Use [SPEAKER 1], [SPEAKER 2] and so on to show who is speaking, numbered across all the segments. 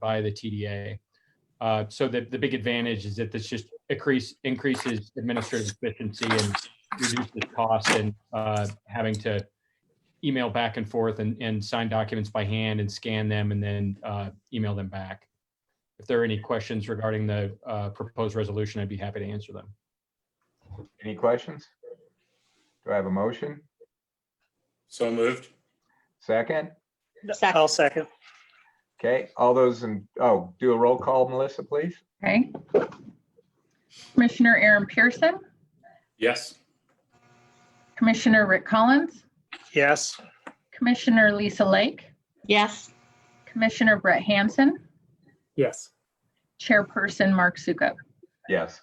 [SPEAKER 1] by the TDA. Uh, So the, the big advantage is that this just increase, increases administrative efficiency and reduces cost and uh, having to email back and forth and, and sign documents by hand and scan them and then uh, email them back. If there are any questions regarding the uh, proposed resolution, I'd be happy to answer them.
[SPEAKER 2] Any questions? Do I have a motion?
[SPEAKER 3] So moved.
[SPEAKER 2] Second?
[SPEAKER 4] Second.
[SPEAKER 5] I'll second.
[SPEAKER 2] Okay, all those in, oh, do a roll call, Melissa, please?
[SPEAKER 6] Okay. Commissioner Aaron Pearson,
[SPEAKER 3] Yes.
[SPEAKER 6] Commissioner Rick Collins,
[SPEAKER 5] Yes.
[SPEAKER 6] Commissioner Lisa Lake,
[SPEAKER 4] Yes.
[SPEAKER 6] Commissioner Brett Hansen,
[SPEAKER 5] Yes.
[SPEAKER 6] Chairperson Mark Sukup.
[SPEAKER 2] Yes.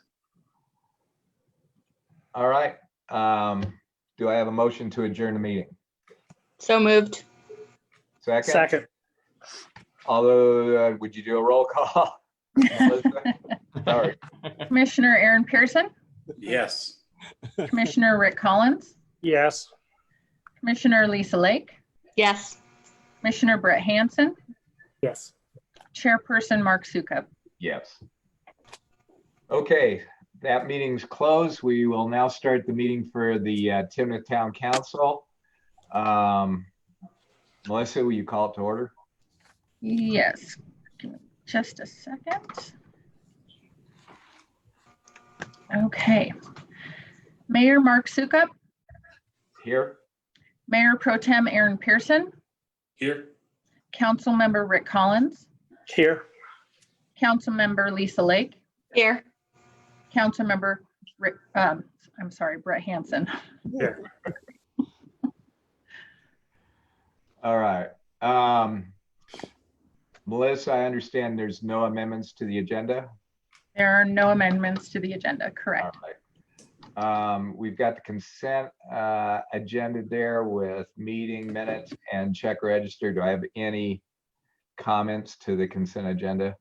[SPEAKER 2] All right, um, do I have a motion to adjourn the meeting?
[SPEAKER 4] So moved.
[SPEAKER 2] Second?
[SPEAKER 5] Second.
[SPEAKER 2] Although, would you do a roll call? Melissa? Sorry,
[SPEAKER 6] Commissioner Aaron Pearson,
[SPEAKER 3] Yes.
[SPEAKER 6] Commissioner Rick Collins,
[SPEAKER 5] Yes.
[SPEAKER 6] Commissioner Lisa Lake,
[SPEAKER 4] Yes.
[SPEAKER 6] Commissioner Brett Hansen,
[SPEAKER 5] Yes.
[SPEAKER 6] Chairperson Mark Sukup.
[SPEAKER 2] yes. Okay, that meeting's closed. We will now start the meeting for the uh, Timoth Town Council. Um, Melissa, will you call it to order?
[SPEAKER 6] Yes, Give me just a second. Okay. Mayor Mark Sukup,
[SPEAKER 2] Here?
[SPEAKER 6] Mayor Pro Tem Aaron Pearson,
[SPEAKER 3] Here.
[SPEAKER 6] Councilmember Rick Collins,
[SPEAKER 5] Here.
[SPEAKER 6] Councilmember Lisa Lake,
[SPEAKER 4] Here.
[SPEAKER 6] Councilmember Rick, um, I'm sorry, Brett Hansen.
[SPEAKER 2] All right. Um, Melissa, I understand there's no amendments to the agenda.
[SPEAKER 6] There are no amendments to the agenda,
[SPEAKER 2] All
[SPEAKER 6] correct?
[SPEAKER 2] right. Um, we've got the consent, uh, agenda there with meeting minutes and check register. Do I have any comments to the consent agenda?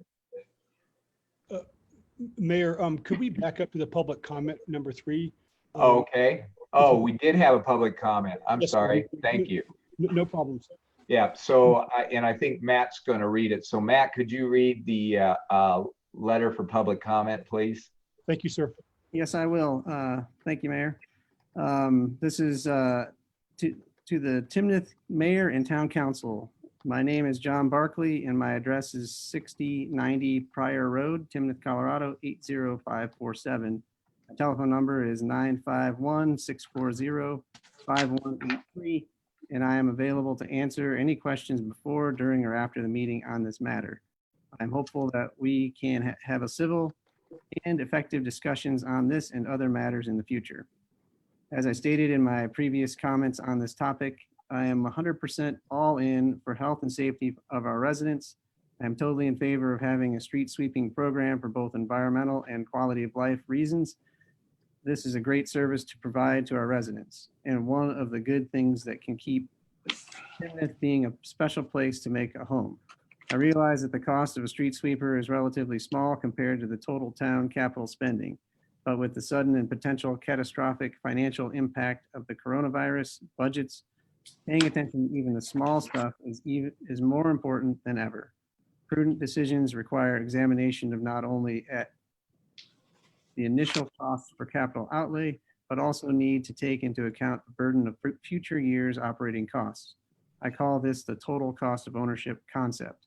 [SPEAKER 7] Mayor, um, could we back up to the public comment number three? Um,
[SPEAKER 2] Oh, Okay. Oh, we did have a public comment. I'm
[SPEAKER 7] Yes, sir.
[SPEAKER 2] sorry. Thank you.
[SPEAKER 7] n- Uh, No problems.
[SPEAKER 2] Yeah, so, I- and I think Matt's going to read it. So Matt, could you read the, uh, uh, letter for public comment, please?
[SPEAKER 7] Thank you, sir.
[SPEAKER 8] Yes, I will. Uh, Thank you, Mayor. Um, This is uh, to to the Timnath Mayor and Town Council. My name is John Barkley and my address is 6090 Prior Road, Timnath, Colorado 80547. My Telephone number is 951-640-5183, and I am available to answer any questions before, during, or after the meeting on this matter. I'm hopeful that we can ha- have a civil and effective discussions on this and other matters in the future. As I stated in my previous comments on this topic, I am 100% all in for health and safety of our residents. I'm totally in favor of having a street sweeping program for both environmental and quality of life reasons. This is a great service to provide to our residents and one of the good things that can keep Timoth being a special place to make a home. I realize that the cost of a street sweeper is relatively small compared to the total town capital spending. But with the sudden and potential catastrophic financial impact of the coronavirus budgets, paying attention to even the small stuff is even, is more important than ever. Prudent decisions require examination of not only at the initial cost for capital outlay, but also need to take into account the burden of fu- future years' operating costs. I call this the total cost of ownership concept.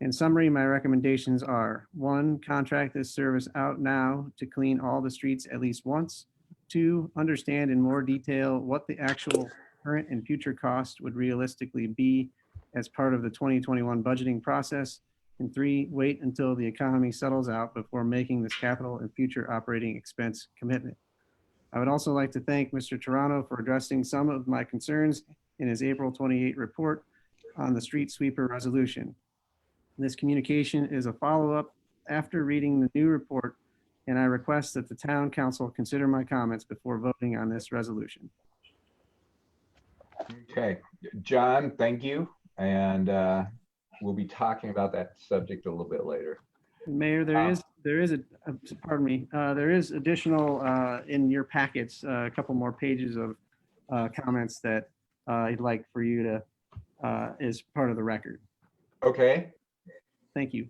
[SPEAKER 8] In summary, my recommendations are, one, contract this service out now to clean all the streets at least once. Two, understand in more detail what the actual current and future cost would realistically be as part of the 2021 budgeting process. And three, wait until the economy settles out before making this capital and future operating expense commitment. I would also like to thank Mr. Toronto for addressing some of my concerns in his April 28 report on the street sweeper resolution. This communication is a follow-up after reading the new report, and I request that the town council consider my comments before voting on this resolution.
[SPEAKER 2] Okay, John, thank you. And, uh, we'll be talking about that subject a little bit later.
[SPEAKER 8] Mayor,
[SPEAKER 2] Ah.
[SPEAKER 8] there is, there is, a uh, pardon me, uh, there is additional uh, in your packets, uh, a couple more pages of uh, comments that uh, I'd like for you to, uh, as part of the record.
[SPEAKER 2] Okay.
[SPEAKER 8] Thank you.